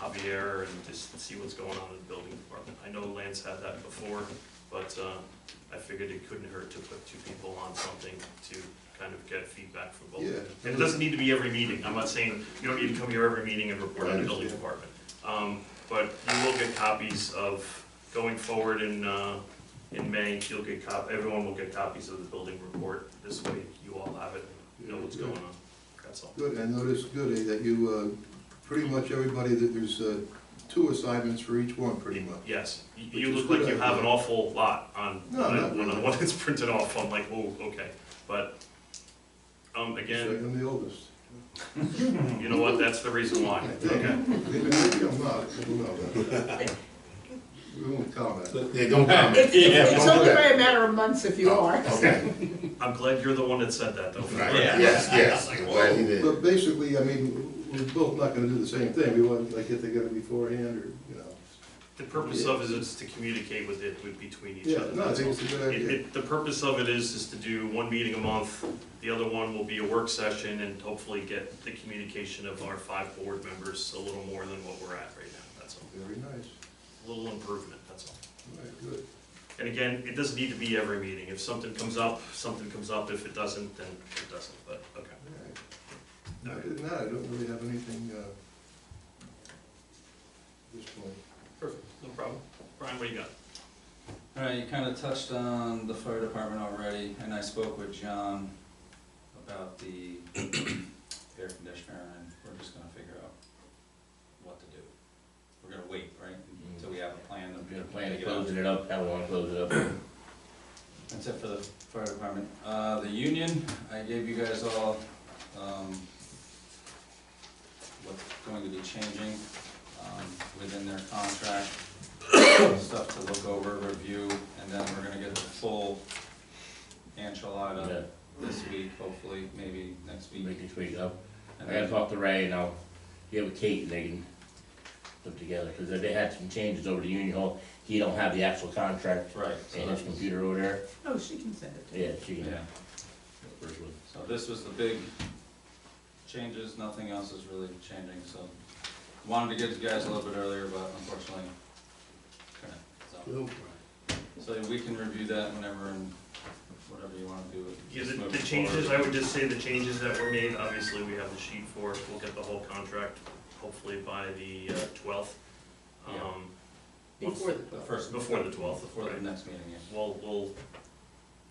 Javier and just see what's going on in the building department. I know Lance had that before, but uh, I figured it couldn't hurt to put two people on something to kind of get feedback from both. Yeah. And it doesn't need to be every meeting, I'm not saying, you don't need to come here every meeting and report on the building Right, yeah. department. Um, But you will get copies of, going forward in, uh, in May, you'll get cop, everyone will get copies of the building report. This way, you all have it, you know what's going on, that's all. Good, I noticed, good, eh, that you, uh, pretty much everybody, that there's, uh, two assignments for each one, pretty much. Yes, You- Which you is look like good, you have an actually. awful lot on, No, when I- not when I- really. when it's printed off, I'm like, oh, okay. But, um, So again, I'm the oldest. you know what, that's the reason why, I think. okay? Maybe I'm not, who knows? We won't comment. Yeah, don't comment. It's, it's, Yeah, it's don't do only that. by a matter of months if you are. Okay, I'm glad you're the one that said that, though. right, yes, yes, I'm glad you did. But basically, I mean, we're both not gonna do the same thing, we want, like, get together beforehand, or, you know. The purpose of it is to communicate with it, with, between each Yeah, other. no, I that's think all. it's a good It- idea. it- The purpose of it is, is to do one meeting a month, the other one will be a work session, and hopefully get the communication of our five board members a little more than what we're at right now, that's all. Very nice, A little improvement, that's all. all right, good. And again, it doesn't need to be every meeting, if something comes up, something comes up, if it doesn't, then it doesn't, but, okay. No, I did not, I don't really have anything, uh, at this point. Perfect, no problem. Brian, what do you got? All right, you kind of touched on the fire department already, and I spoke with John about the air conditioner, and we're just gonna figure out what to do. We're gonna wait, right, until Mm-hmm. we have a plan. of- Got a plan of to get out. closing it up, how long close it up? That's it for the fire department. Uh, the union, I gave you guys all, um, what's going to be changing, um, within their contract. Stuff to look over, review, and then we're gonna get the full Yeah, uh, enchilada this week, hopefully, maybe next we week. can tweak it up. And I gotta then- talk to Ray and I'll get with Kate and they can put together, cause they had some changes over to Union Hall. He don't have the actual contract Right, so in his that's, computer over there. Oh, she can send it to Yeah, she can. yeah. first one. So this was the big changes, nothing else is really changing, so wanted to get to you guys a little bit earlier, but unfortunately, couldn't, so. So we can review that whenever and whatever you wanna do. Yeah, just the, move the it changes, I forward. would just say the changes that were made, obviously, we have the sheet for, it. we'll get the whole contract hopefully by the uh, twelfth. Yeah. Um, Before the The twelve. first. Before the 12th, Before the right. next meeting, yeah. we'll, we'll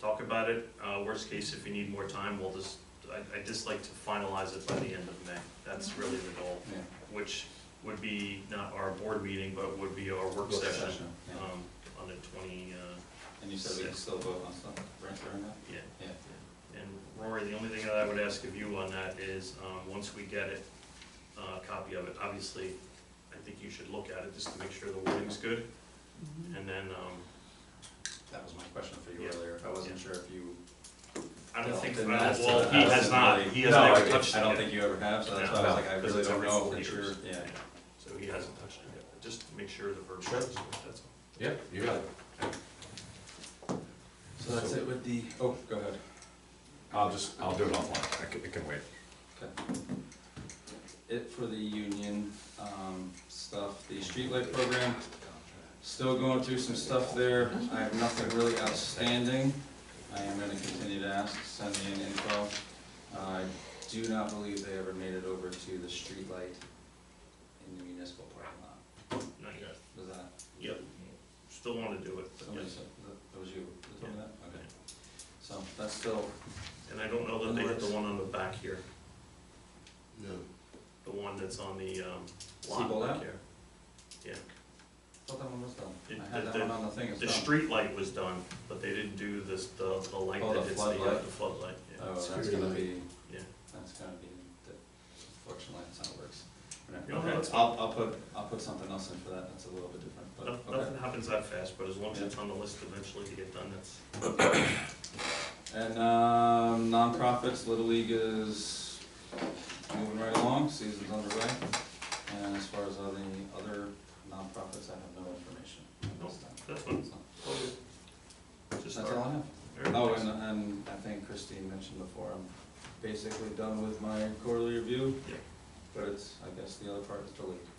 talk about it, uh, worst case, if you need more time, we'll just, I, I just like to finalize it by the end of May. That's really the goal, yeah. which would be not our board meeting, but would be our work session, yeah. um, on the twenty, uh, And you said we can still vote on stuff, right, during that? Yeah, Yeah. and Rory, the only thing that I would ask of you on that is, um, once we get it, uh, a copy of it, obviously, I think you should look at it just to make sure the wording's good, and then, um, That was my question for you Yeah. earlier, I wasn't Yeah. sure if you. I don't No, think, then well, that's- he has not, he has No, never I- touched it I don't yet. think you ever have, so that's No, why I was like, I because really it's don't every know four for sure, years. yeah. So he hasn't touched it yet, just to make sure the verb is, Sure. that's all. Yep, you got it. So that's it with the, oh, go ahead. I'll just, I'll do it offline. I can, it can wait. It for the union, um, stuff, the streetlight program, still going through some stuff there. I have nothing really outstanding. I am gonna continue to ask, send me an info. I do not believe they ever made it over to the streetlight in the municipal parking lot. Not yet. Was that? Yep, still wanna do it, but Somebody yes. said, that that was you that told me that? Yeah. Okay. So that's still, And I don't know that they hit the one on the back here, No. the one that's on the, um, Siebel lot back out? here. I thought that one was done. It- I had the- that one on the thing, it's The done. street light was done, but they didn't do this, the, the light Oh, that the hits the, uh, floodlight. the floodlight, yeah. Oh, that's gonna be, Yeah. that's gonna be, that- unfortunately, that's how it works. You don't have to- I'll, I'll put, I'll put something else in for that, that's a little bit different, Noth- but, okay. Nothing happens that fast, but as long as it's on the list eventually to get done, that's, And, um, nonprofits, Little League is moving right along, season's underway. And as far as all the other nonprofits, I have no information at this time. that's what, So, just That's all I have. start. Oh, and, and I think Christine mentioned before, I'm basically done with my quarterly review. Yeah. But it's, I guess the other part is the league.